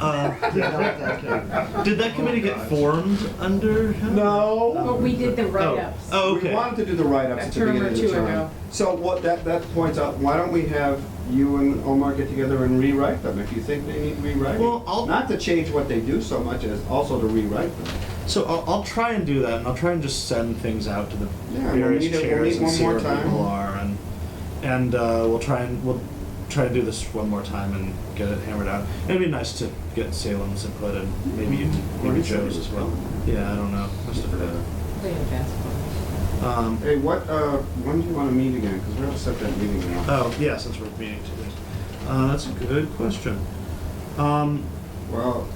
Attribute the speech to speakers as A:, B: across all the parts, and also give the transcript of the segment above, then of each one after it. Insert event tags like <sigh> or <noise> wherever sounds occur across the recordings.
A: Uh,
B: No.
A: did that committee get formed under him?
C: Well, we did the write-ups.
A: Oh. okay.
B: We wanted to do the write-ups
C: A
B: at the
C: term or
B: beginning of the
C: two
B: term.
C: ago.
B: So what, that, that points out, why don't we have you and Omar get together and rewrite them if you think they need rewriting?
A: Well, I'll-
B: Not to change what they do so much as also to rewrite them.
A: So I'll, I'll try and do that, and I'll try and just send things out to the
B: Yeah, we'll
A: various
B: meet it- we'll
A: chairs
B: meet
A: and
B: one
A: see
B: more
A: where
B: time.
A: people are, and and uh, we'll try and we'll try and do this one more time and get it hammered out. It'd be nice to get Salem's input and maybe even maybe
B: Or
A: Joe's as well. Yeah, I don't know. Must have heard.
C: Playing basketball.
A: Um,
B: Hey, what, uh, when do you want to meet again? Because we're going to set that meeting now.
A: oh yeah, since we're meeting today, uh, that's a good question. Um,
B: Well,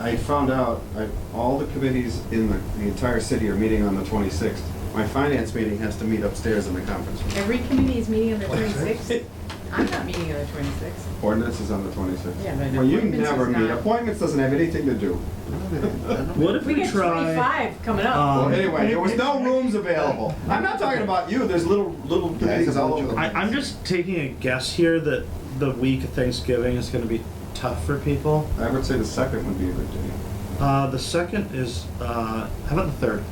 B: I found out, I, all the committees in the, the entire city are meeting on the twenty-sixth. My finance meeting has to meet upstairs in the conference room.
C: Every committee is meeting on the twenty-sixth. I'm not meeting on the twenty-sixth.
B: Ordinance is on the twenty-sixth.
C: Yeah, but
B: Well, you
C: appointments is
B: never meet,
C: not-
B: appointments doesn't have anything to do.
A: what if
C: We
A: we,
C: get
A: try?
C: twenty-five coming
A: Um,
C: up.
B: Well, anyway, there was
C: <laughs>
B: no rooms available. I'm not talking about you, there's little, little committees all over the
A: I, I'm just taking a guess here that the week of Thanksgiving is going to be tough for people.
B: I would say the second would be a good day.
A: Uh, the second is uh, how about the third?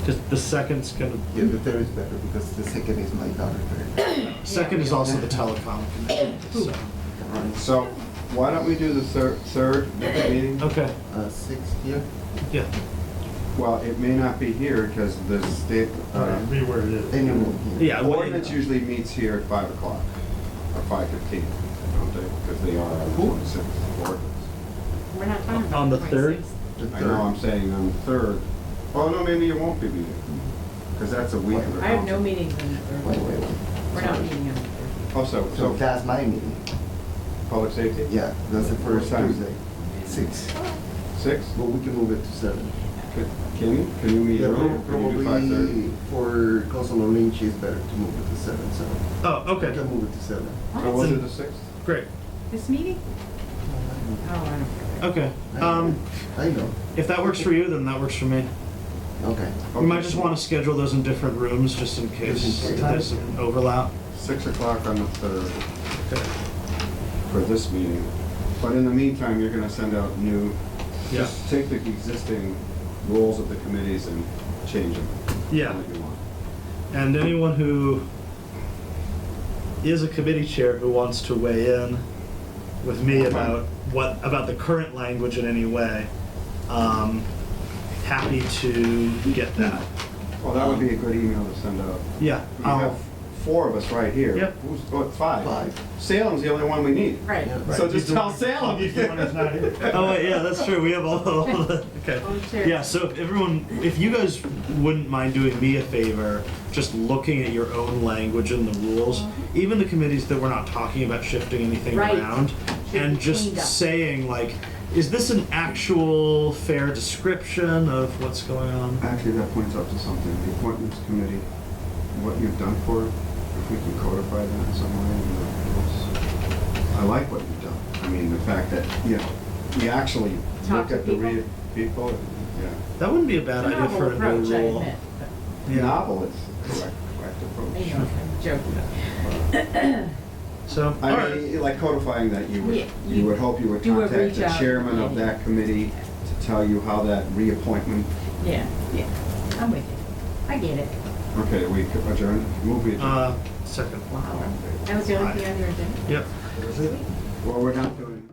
A: Because the second's going to
D: Yeah, the third is better because the second is my daughter's birthday.
A: second is also the telecom. committee, So.
B: So, why don't we do the third, third next meeting?
A: Okay.
D: Uh, sixth year?
A: Yeah.
B: Well, it may not be here because the state, uh,
E: Be where it is.
D: Anyway.
A: Yeah. what-
B: ordinance usually meets here at five o'clock or five fifteen, don't they? Because they are on the
A: Who?
B: twenty-sixth ordinance.
C: We're not talking about.
A: On the third?
C: 26th.
D: The
B: I know, I'm
D: third.
B: saying on the third. Oh, no, maybe it won't be meeting because that's a week of the
C: I have no
B: conference.
C: meetings on the
D: Wait,
C: third.
D: wait, wait.
C: We're not meeting on the third.
B: Oh, so,
D: So
B: so
D: that's my meeting.
B: public safety?
D: Yeah, that's the first
B: What time?
D: Tuesday, six.
B: Six?
D: But we can move it to seven.
B: Can, can you, can you meet
D: Yeah,
B: earlier? Can you do five
D: Probably
B: thirty?
D: for Councilor Lynch, it's better to move it to seven, so.
A: Oh,
D: We
A: okay.
D: can move it to seven.
B: So
C: What?
B: we'll do the sixth?
A: Great.
C: This meeting? Oh, I don't care.
A: Okay.
D: I know.
A: Um,
D: I know,
A: if that works for you, then that works for me.
D: okay.
A: We might just want to schedule those in different rooms just in case
D: Different
A: there's some overlap.
B: Six o'clock on the third
A: Okay.
B: for this meeting. But in the meantime, you're gonna send out new,
A: Yeah.
B: just take the existing roles of the committees and change them.
A: Yeah.
B: What you want.
A: And anyone who is a committee chair who wants to weigh in with me about what, about the current language in any way, um, happy to get that.
B: Well, that would be a good email to send out.
A: Yeah,
B: We
A: I'll,
B: have four of us right here.
A: Yep.
B: Who's, oh, five.
D: Five.
B: Salem's the only one we need.
C: Right.
D: Yeah.
B: So just tell Salem.
E: He's the one that's not here.
A: <laughs> oh, wait, yeah, that's true, we have all, all the, okay.
C: Oh, sure.
A: Yeah, so if everyone, if you guys wouldn't mind doing me a favor, just looking at your own language and the rules, even the committees that we're not talking about shifting anything
C: Uh-huh. Right.
A: around,
C: Should
A: and
C: be
A: just
C: cleaned up.
A: saying like, is this an actual fair description of what's going on?
B: Actually, that points up to something, the appointments committee, what you've done for it, if we can codify that in some way in the rules. I like what you've done. I mean, the fact that, you know, we actually look
C: Talk to
B: at the real
C: people?
B: people,
A: That wouldn't be a bad
C: It's a
A: idea
C: novel
A: for a
C: approach,
A: new
C: I
A: rule.
C: admit,
B: yeah. Novel is the correct, correct
C: but, you know,
B: approach. Uh,
C: I'm joking.
A: So, all
B: I
A: right,
B: mean, like codifying that, you
C: Yeah,
B: would,
C: you
B: you would hope you would
C: do a
B: contact
C: reach
B: the
C: out.
B: chairman of that committee to tell you how that reappointment,
C: Yeah, yeah, I'm with you. I get it.
B: okay, we adjourn, move we adjourn.
A: uh, second.
C: Wow. That was the only thing on your agenda?
A: Yep.
B: Well, we're not doing.